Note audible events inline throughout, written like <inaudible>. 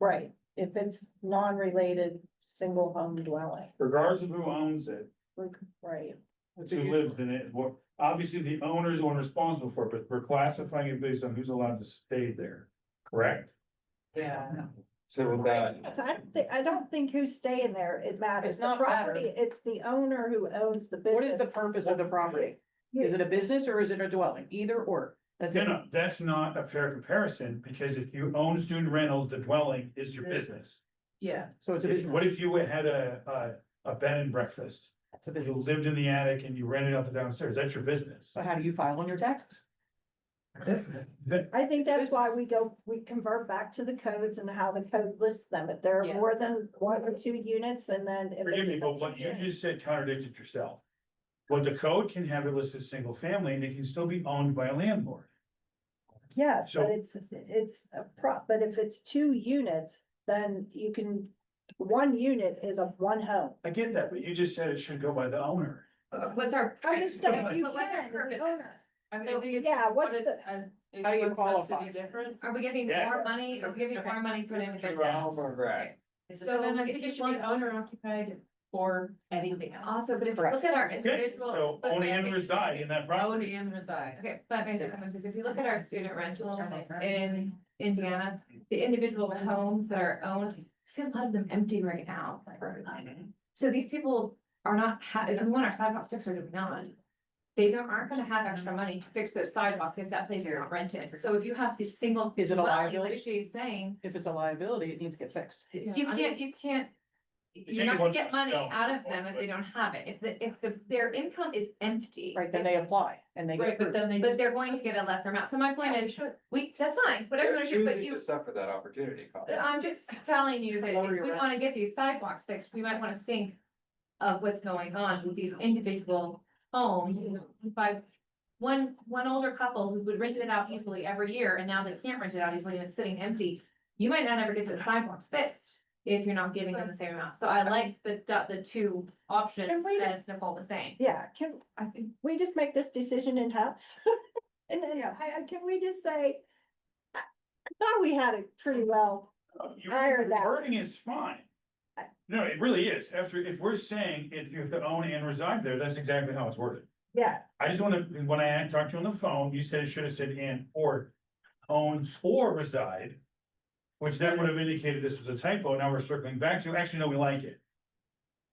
Right, if it's non-related, single home dwelling, regardless of who owns it, right, who lives in it, what, obviously the owner's the one responsible for it, but we're classifying it based on who's allowed to stay there, correct? Yeah. So with that, So I don't think, I don't think who's staying there, it matters. It's The not matter. property, it's the owner who owns the business. What is the purpose of the property? Is it a business or is it a dwelling? Either or. That's no, it. no, that's not a fair comparison, because if you own student rentals, the dwelling is your business. Yeah. So it's a If- business. What if you had a, a, a bed and breakfast, It's a you business. lived in the attic and you rented out the downstairs, that's your business. So how do you file on your taxes? Business. That- I think that's why we go, we convert back to the codes and how the code lists them. If there are Yeah. more than one or two units and then. if forgive it's- me, but what you just said contradicted yourself. Well, the code can have it listed as single family, and it can still be owned by a landlord. Yes, so- but it's, it's a prop, but if it's two units, then you can, one unit is a one home. I get that, but you just said it should go by the owner. What's our? I just don't- But you what's our can, purpose? you of can. this? I mean, So, I think it's. yeah, what's what is- the- uh, is How do you one subsidy qualify? Different. Are we giving Yeah. more money? Are we giving more money for an individual? Right. So So then I if think you it's one want- owner occupied or anything else. Also, but if you Correct. look at our Okay, individual. so but only may I and say- reside in that Own property. and reside. Okay, but basically, because if you look at our student rentals in Indiana, the individual homes that are owned, we see a lot of them empty right now. So these people are not, ha- if we want our sidewalks fixed or do we not? They don't, aren't gonna have extra money to fix those sidewalks if that place is not rented. So if you have these single. Is it a dwellings, liability? Like she's saying, If it's a liability, it needs to get fixed. you can't, you can't. You're take not one gonna get for money yourself, out of one them if for- they don't have it. If the, if the, their income is empty. Right, then if- they apply and they get Right, but approved. then they. But they're going to get a lesser amount. So my point is, we, that's fine, whatever, They're it is, but choosing you, to Suffer that opportunity cost. but I'm just telling you that Lower if your we rent. wanna get these sidewalks fixed, we might wanna think of what's going on with these individual homes by one, one older couple who would rent it out easily every year, and now they can't rent it out easily and it's sitting empty. You might not ever get those sidewalks fixed if you're not giving them the same amount. So I like the, the two Can options we that just- Nicole was saying. Yeah, can, I think we just make this decision in-house? <laughs> And then, I, I- can we just say, I I thought we had it pretty well, You- I heard that. Mm-hmm. Wording is fine. No, it really is. After, if we're saying if you own and reside there, that's exactly how it's worded. yeah, I just wanna, when I talked to you on the phone, you said it should have said and or own or reside. Which that would have indicated this was a typo. Now we're circling back to, actually, no, we like it.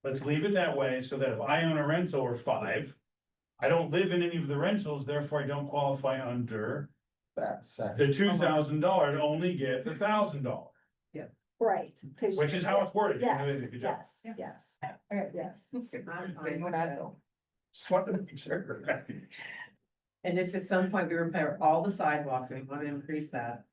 Let's leave it that way so that if I own a rental or five. I don't live in any of the rentals, therefore I don't qualify under That's. the two thousand dollar, only get the thousand dollar, right. 'cause- which is how it's worded. You Yes, did a good job. yes, yes, yes. I'm fine with that. Just wanted to make sure. And if at some point we repair all the sidewalks and we want to increase that,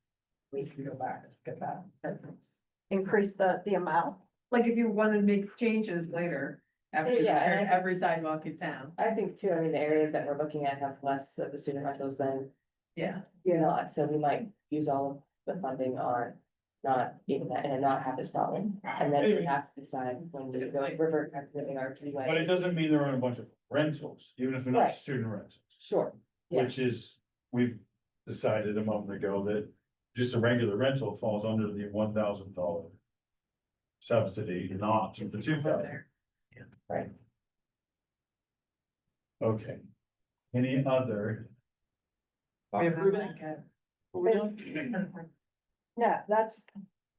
we can go back, get that. that fixed. Increase the, the amount. Like if you want to make changes later, after you Yeah, and repair I- every sidewalk in town, I think too, I mean, the areas that we're looking at have less of the student rentals than yeah. not, so we might use all of the funding on. Not even that, and not have this problem, and then we have to decide when we go like revert back to living our three But it way. doesn't mean there aren't a bunch of rentals, even if they're not Right. student rentals. Sure, Yeah. Which is, we've decided a moment ago that just a regular rental falls under the one thousand dollar. Subsidy, not the two thousand. Yeah. Right. Okay. Any other? We approve it? What we're doing? No, that's,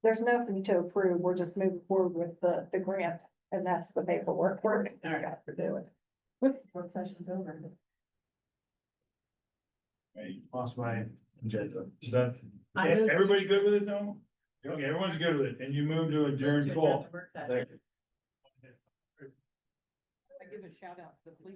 there's nothing to approve. We're just moving forward with the, the grant and that's the paperwork. We're All right. got to do it. Work session's over. I lost my agenda. Is that, I moved- everybody good with it though? Okay, everyone's good with it, and you move to adjourn call. Work session. I give a shout out to the police